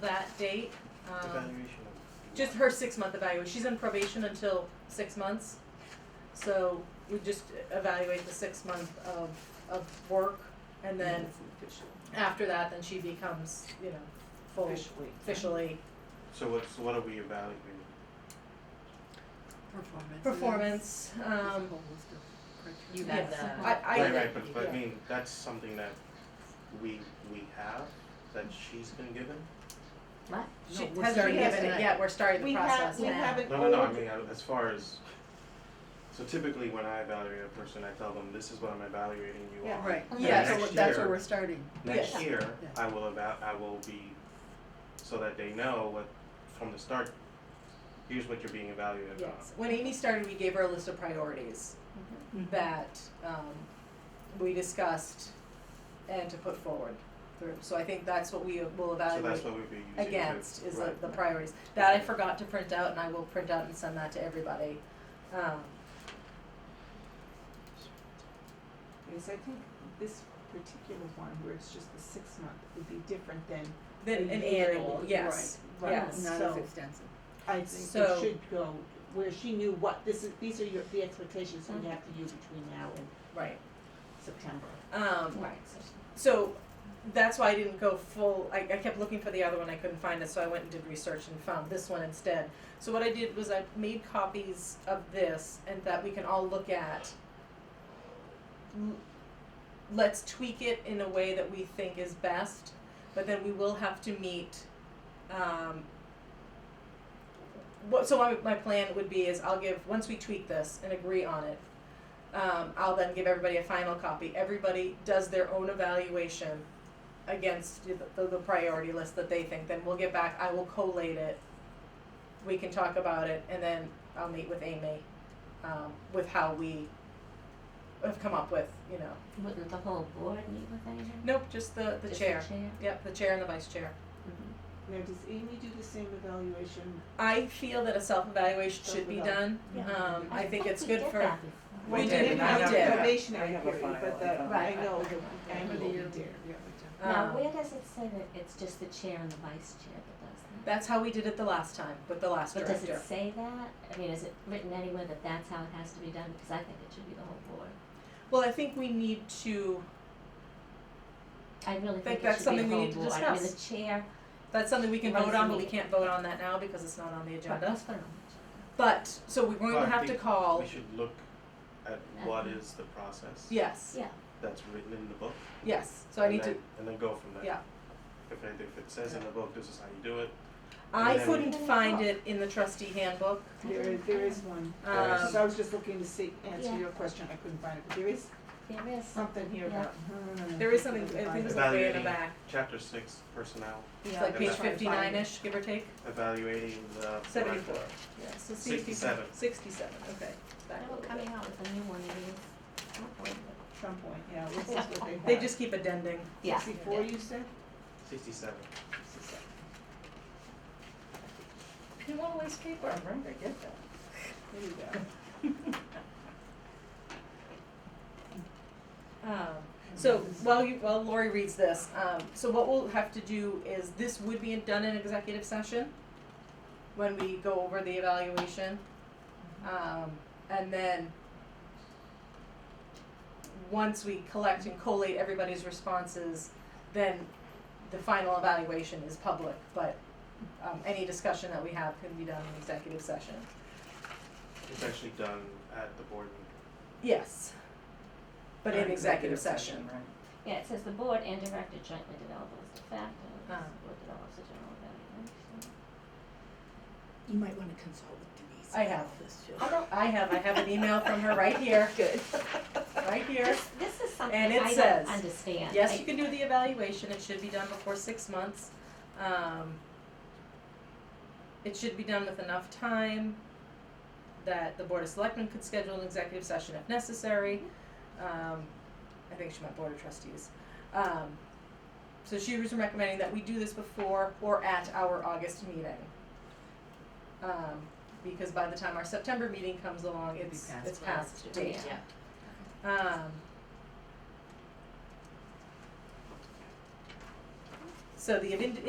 that date. Um, Evaluation of. just her six month evaluation. She's in probation until six months. So we just evaluate the six month of, of work and then after that, then she becomes, you know, Oh, full Officially. officially So what's, what are we evaluating? Performance. performance. Um, You Yeah. had I- the. I- Right, right, but, but I yeah. mean, that's something that we, we have, that she's been given? What? No, she we're hasn't starting given it tonight. yet. We're starting the We process have, we now. have an No, no, no, I old- mean, I- as far as, so typically when I evaluate a person, I tell them, this is what I'm evaluating you Yeah. on. Right, And Yeah, yeah, so next that's where year- we're starting. Next Yes. year, Yeah. I will about, I will be, so that they know what, from the start, here's what you're being evaluated on. Yes. When Amy started, we gave her a list of priorities Mm-hmm. that um, we discussed and to put forward through. So I think that's what we will So evaluate that's what we'd be using to. against is the, right. the priorities. That I forgot to print out and I will print out and send that to everybody. Um, Because I think this particular one, where it's just the six month, would be different than then a an year, annual, yes. Right, right. Yes. Not So- as extensive. I think So- it should go, where she knew what, this is, these are your, the expectations that you have to do between now and Right. September. Um, Right. So that's why I didn't go full. I, I kept looking for the other one, I couldn't find it, so I went and did research and found this one instead. So what I did was I made copies of this and that we can all look at. L- Let's tweak it in a way that we think is best, but then we will have to meet. Um, what, so my, my plan would be is I'll give once we tweak this and agree on it, um, I'll then give everybody a final copy. Everybody does their own evaluation against the, the, the priority list that they think. Then we'll get back. I will collate it. We can talk about it, and then I'll meet with Amy um, with how we have come up with. You know, Wouldn't the whole board meet with anyone? nope, just the the Just chair. the chair? Yep, the chair and the vice chair. Now, does Amy do the same evaluation? I feel that a self evaluation should be done. Yeah. Um, I think it's good we did for. that before. We did, didn't we have did. the probationary I have a period, but file, the, I I have- know the Right. annual we did. Now, um, where does it say that it's just the chair and the vice chair that does that? that's how we did it the last time with the last But does director. it say that? I mean, is it written anywhere that that's how it has to be done? Because I think it should be the whole board. well, I think we need to. I really Think think that's it should be something the we whole need to board. I mean, the discuss. chair, That's something we can vote Runs on, the but we meeting. can't vote on that now because it's not on the agenda. let's put it on the agenda. But, so we're going to But have we- to call, We should look at what is the process yes, Yeah, that's written in the book. yes, so I and need to, then- And then go from there. Yeah. If it, if it says in the book, this is how you do it, I and then we- couldn't find it in the trustee handbook. There is, there is one, There is. Um, so I was just looking to see, answer Yeah. your question, I couldn't find it, but there is there is some, something here Yeah. about. hmm, There is something, I think it was like way in the Evaluating. back, chapter six, personnel, it's like I'm page not trying to find it. fifty-nine-ish, give or take, evaluating the. seventy-four, yeah, so sixty-seven, 67. sixty-seven, okay, back a they're little coming bit. out with a new one, maybe it's not going to- Some point, yeah, this is what they have. They just keep addending, Yeah. Sixty-four, you said? Sixty-seven. you won't waste paper. remember, I get that. There you go. Um, So while you, while Lori reads this, um, so what we'll have to do is, this would be done in executive session when we go over the evaluation. Um, and then once we collect and collate everybody's responses, then the final evaluation is public, but um, any discussion that we have can be done in executive session. It's actually done at the board meeting. Yes. But in executive session. Yeah, it says the board and director jointly develop a list of factors, the Ah. board develops a general evaluation. You might wanna consult with Denise. I have. about this too. I don't, I have, I have an email from her right here, Good. right here. This is something And it I says, don't understand. Yes, I- you can do the evaluation, it should be done before six months. Um, It should be done with enough time that the Board of Selectmen could schedule an executive session if necessary. Um, I think she meant Board of Trustees. Um, So she was recommending that we do this before or at our August meeting. Um, Because by the time our September meeting comes along, it's, it's past date. Yeah. Um. So the ind-